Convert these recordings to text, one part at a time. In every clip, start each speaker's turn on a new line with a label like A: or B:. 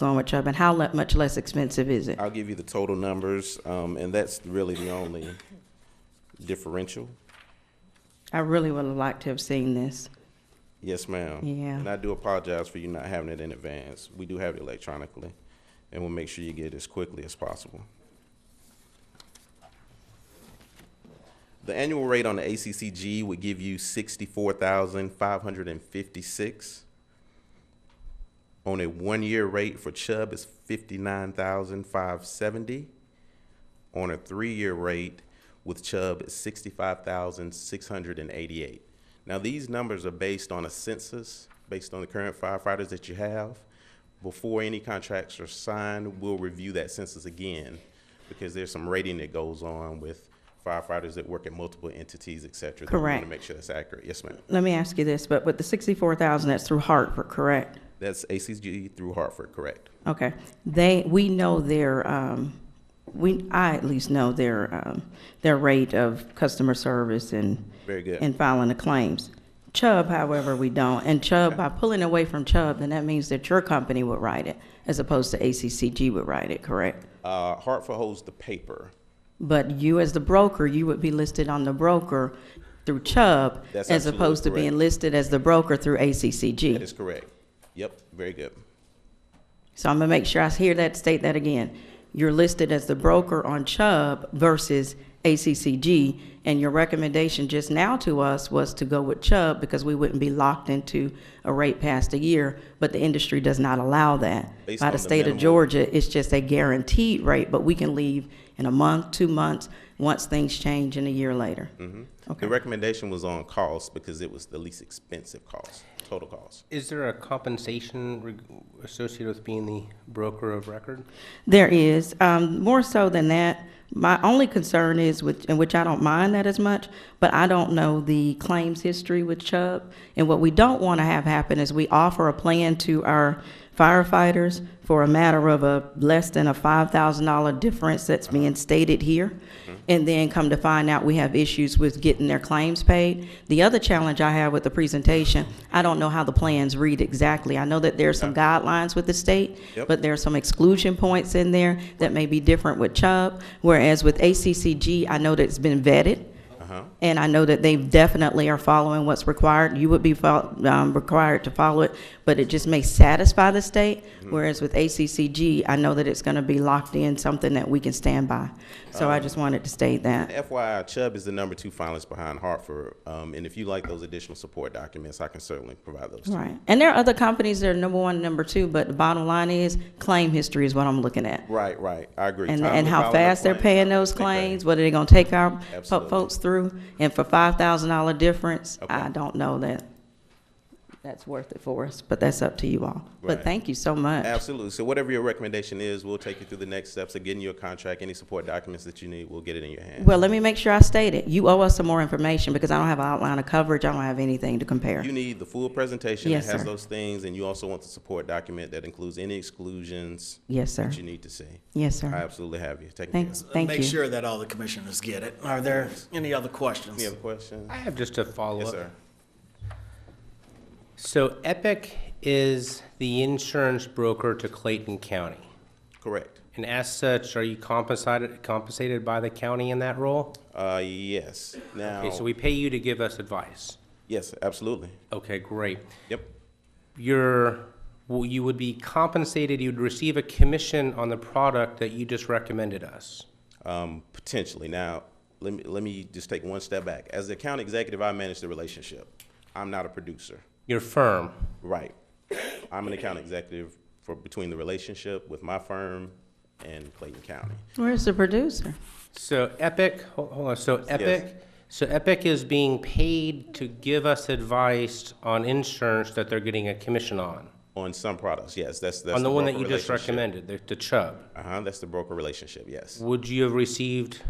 A: throwing a chub, and how le- much less expensive is it?
B: I'll give you the total numbers, um, and that's really the only differential.
A: I really would have liked to have seen this.
B: Yes, ma'am.
A: Yeah.
B: And I do apologize for you not having it in advance. We do have it electronically, and we'll make sure you get it as quickly as possible. The annual rate on the ACCG would give you sixty-four thousand five hundred and fifty-six. On a one-year rate for Chubb is fifty-nine thousand five seventy. On a three-year rate with Chubb is sixty-five thousand six hundred and eighty-eight. Now, these numbers are based on a census, based on the current firefighters that you have. Before any contracts are signed, we'll review that census again because there's some rating that goes on with firefighters that work at multiple entities, et cetera. that we wanna
A: Correct.
B: Make sure that's accurate. Yes, ma'am.
A: Let me ask you this, but with the sixty-four thousand, that's through Hartford, correct?
B: That's ACG through Hartford, correct?
A: Okay, they, we know their, um, we, I at least know their, um, their rate of customer service and.
B: Very good.
A: And filing the claims. Chubb, however, we don't, and Chubb, by pulling away from Chubb, then that means that your company would write it, as opposed to ACCG would write it, correct?
B: Uh, Hartford holds the paper.
A: But you, as the broker, you would be listed on the broker through Chubb,
B: That's
A: as
B: absolutely
A: opposed to being
B: correct.
A: listed as the broker through ACCG.
B: That is correct. Yep, very good.
A: So I'm gonna make sure I hear that, state that again. You're listed as the broker on Chubb versus ACCG, and your recommendation just now to us was to go with Chubb because we wouldn't be locked into a rate past a year, but the industry does not allow that.
B: Based
A: By
B: on
A: the
B: the
A: state of
B: minimum.
A: Georgia, it's just a guaranteed rate, but we can leave in a month, two months, once things change in a year later.
B: The
A: Okay.
B: recommendation was on cost because it was the least expensive cost, total cost.
C: Is there a compensation reg- associated with being the broker of record?
A: There is. Um, more so than that, my only concern is with, and which I don't mind that as much, but I don't know the claims history with Chubb. And what we don't want to have happen is we offer a plan to our firefighters for a matter of a less than a five thousand dollar difference that's being stated here. And then come to find out we have issues with getting their claims paid. The other challenge I have with the presentation, I don't know how the plans read exactly. I know that there are some guidelines with the state,
B: Yep.
A: but there are some exclusion points in there that may be different with Chubb, whereas with ACCG, I know that it's been vetted,
B: Uh-huh.
A: and I know that they definitely are following what's required. You would be fol- um, required to follow it, but it just may satisfy the state, whereas with ACCG, I know that it's going to be locked in, something that we can stand by. So I just wanted to state that.
B: FYI, Chubb is the number two finalist behind Hartford. Um, and if you like those additional support documents, I can certainly provide those. to you.
A: Right. And there are other companies that are number one, number two, but the bottom line is claim history is what I'm looking at.
B: Right, right. I agree.
A: And,
B: Timely
A: and how
B: filing of
A: fast they're
B: claims.
A: paying those
B: Exactly.
A: claims, what are they gonna take our fo-
B: Absolutely.
A: folks through? And for five thousand dollar difference,
B: Okay.
A: I don't know that that's worth it for us, but that's up to you all. But
B: Right.
A: thank you so much.
B: Absolutely. So whatever your recommendation is, we'll take you through the next steps of getting you a contract, any support documents that you need, we'll get it in your hand.
A: Well, let me make sure I state it. You owe us some more information because I don't have an outline of coverage, I don't have anything to compare.
B: You need the full presentation
A: Yes,
B: that has
A: sir.
B: those things, and you also want the support document that includes any exclusions
A: Yes, sir.
B: that you need to see.
A: Yes,
B: I
A: sir.
B: absolutely have you. Taken care
A: Thanks,
B: of.
A: thank
D: Make
A: you.
D: sure that all the commissioners get it. Are there any other questions?
B: Any other questions?
C: I have just a follow-up.
B: Yes, sir.
C: So Epic is the insurance broker to Clayton County.
B: Correct.
C: And as such, are you compensated, compensated by the county in that role?
B: Uh, yes. Now,
C: Okay, so we pay you to give us advice.
B: yes, absolutely.
C: Okay, great.
B: Yep.
C: You're, well, you would be compensated, you'd receive a commission on the product that you just recommended us.
B: Um, potentially. Now, let me, let me just take one step back. As the account executive, I manage the relationship. I'm not a producer.
C: Your firm,
B: Right. I'm an account executive for, between the relationship with my firm and Clayton County.
A: Where's the producer?
C: So Epic, hol- hold on, so Epic, so Epic is being paid to give us advice on insurance that they're getting a commission on?
B: On some products, yes, that's, that's.
C: On the one that you
B: broker
C: just
B: relationship.
C: recommended, the- the Chubb?
B: Uh-huh, that's the broker relationship, yes.
C: Would you have received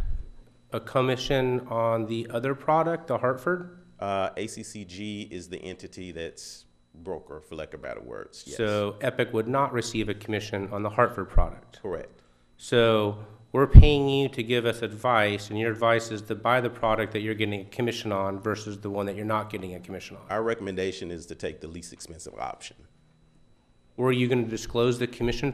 C: a commission on the other product, the Hartford?
B: Uh, ACCG is the entity that's broker, for lack of better words, yes.
C: So Epic would not receive a commission on the Hartford product?
B: Correct,
C: So we're paying you to give us advice, and your advice is to buy the product that you're getting a commission on versus the one that you're not getting a commission on?
B: our recommendation is to take the least expensive option.
C: Were you going to disclose the commission